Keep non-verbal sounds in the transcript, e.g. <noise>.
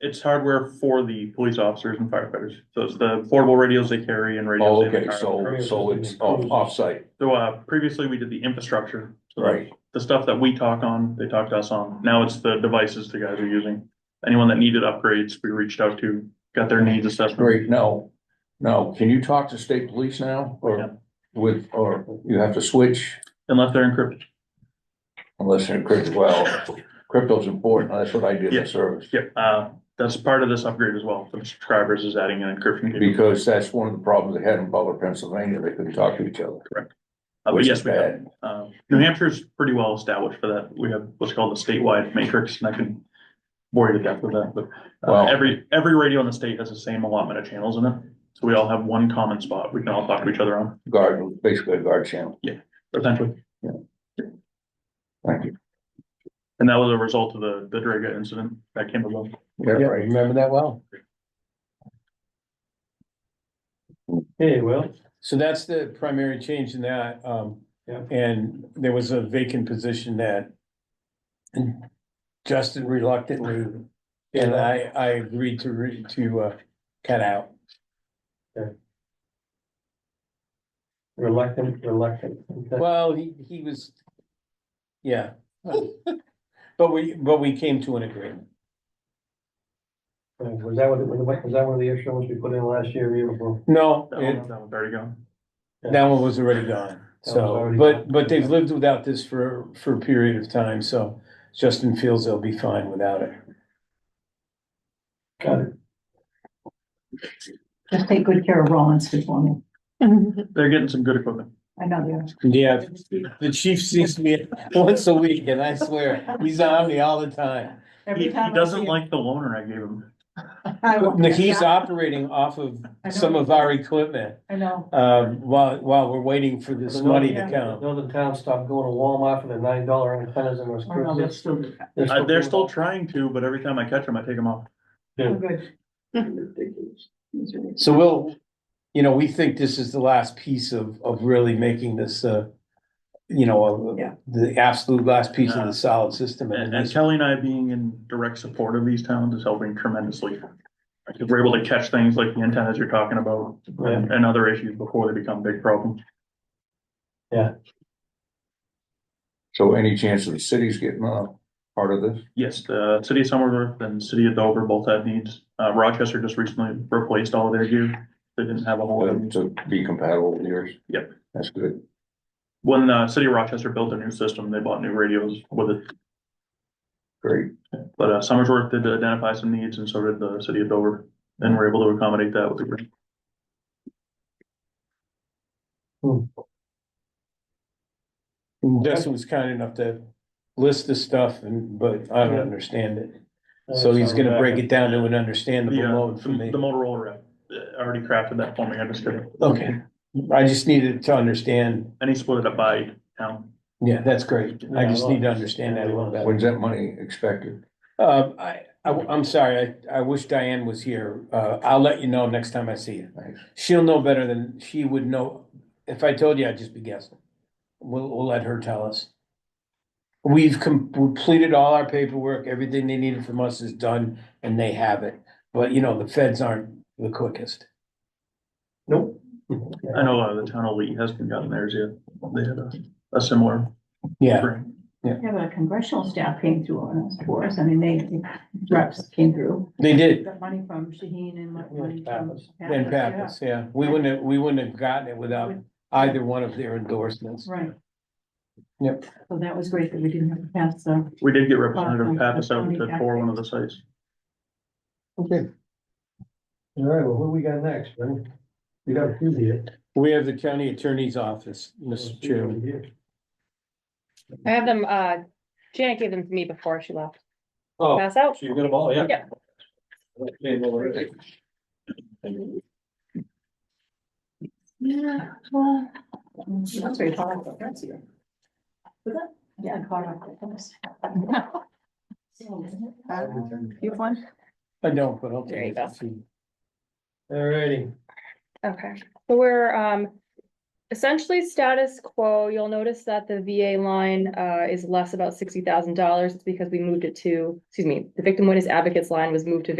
It's hardware for the police officers and firefighters. So it's the portable radios they carry and radios. Oh, in the okay, car. so, so it's off, offsite, So, uh, previously we did the infrastructure. So right? The stuff that we talk on, they talk to us on. Now it's the devices the guys are using. Anyone that needed upgrades, we reached out to, got their needs assessed. Great, now, now, can you talk to state police now, Yeah. or with, or you have to switch? Unless they're encrypted. Unless you're crypto, well, crypto's important, that's what I did Yeah. in service, Yep, uh, that's part of this upgrade as well. For the subscribers is adding an encryption. capability. Uh, because that's one of the problems they had in Butler, Pennsylvania, they couldn't talk to each other. Uh, But which yes, is we have. bad. Um, New Hampshire's pretty well established for that. We have what's called a statewide matrix, and I can bore you to death with that, but uh, Wow. every, every radio in the state has the same allotment of channels in it. So we all have one common spot we can all talk to each other on, Guard, basically a guard channel, essentially. thank you. And that was a result of the, the Draga incident that came about. Yeah, Yeah, right. remember that well. Hey, well, So that's the primary change in that, um, Yeah. and there was a vacant position that Justin reluctantly, and I, I agreed to re, to, uh, cut out. reluctant, reluctant. Okay. Well, he, he was, yeah. But we, but we came to an agreement. Was that one, was that one of the extra ones we put in last year, year before? No, That it, one- that one, there you go. that one was already gone, was so, already but, gone. but they've lived without this for, for a period of time, so Justin feels they'll be fine without it. Got it. Just take good care of Rollinsford for me. They're getting some good equipment. I know they are. Yeah, The chief sees me once a week and I swear, he's on me all the time. He, Every he time I doesn't see like the loaner I gave him. him, I want Now, He's that. operating off of I know. some of our equipment, I know. um, while, while we're waiting for this money to come. Northern town stopped going to Walmart for the nine dollar antennas and those. I know, that's still, Uh, they're still trying to, but every time I catch them, I take them off. still good. <laughs> Ridiculous. It's really- So we'll, you know, we think this is the last piece of, of really making this, uh, you know, uh, Yeah. the absolute last piece of the solid system. And, and And it's- Kelly and I being in direct support of these towns is helping tremendously. Because we're able to catch things like the antennas you're talking about and, and other issues before they become big problems. So any chance of the city's getting uh part of this? Yes, the city of Somerville and city of Dover both have needs. Uh, Rochester just recently replaced all of their gear. They didn't have a whole lot of Well, needs. uh, To be compatible with yours? Yep. That's good. When the city of Rochester built their new system, they bought new radios with it. Great. But uh, Somersworth did identify some needs and so did the city of Dover. And we're able to accommodate that with the grant. Justin was kind enough to list the stuff and, but I don't understand it. Uh, So he's gonna uh, break it down to an understandable The, uh, mode for the me. the Motorola rep uh, already crafted that for me. I just did it. Okay, I just needed to understand, And he split it up by town. yeah, that's great, I Yeah, just well, need to understand that a little better. When's that money expected? Uh, I, I, am sorry, I, I wish Diane was here, uh, I'll let you know next time I see you. Thanks. She'll know better than, she would know, if I told you, I'd just be guessing. We'll, we'll let her tell us. We've com- completed all our paperwork, everything they needed from us is done, and they have it, but you know, the feds aren't the quickest. Nope. I know uh, the town of Lee hasn't gotten theirs yet. They had a, a similar Yeah, grant. Yeah, but congressional staff came through on us, for us. I mean, they, reps came through. they did. Got money from Shaheen and what money from. Pappas. And yeah. Pappas, yeah, we wouldn't, have- we wouldn't have gotten it without either one of their endorsements. Right. Yep. So that was great that we didn't have to pass the, We did get Representative Pappas out to tour one of the sites. Okay. All right, well, what we got next, man? We got a few here. We have the county attorney's office, Mr. Chairman. I have them, uh, Janet gave them to me before she left. Oh, Pass out. you got them all, yeah? Yeah. Yeah. yeah, well, that's very powerful. That's you. Was that? Yeah, caught <laughs> up. You have one? I don't, but okay. There you go. All righty. Okay, so we're, um, essentially status quo. You'll notice that the VA line, uh, is less about sixty thousand dollars. It's because we moved it to, excuse me, the victim witness advocates line was moved to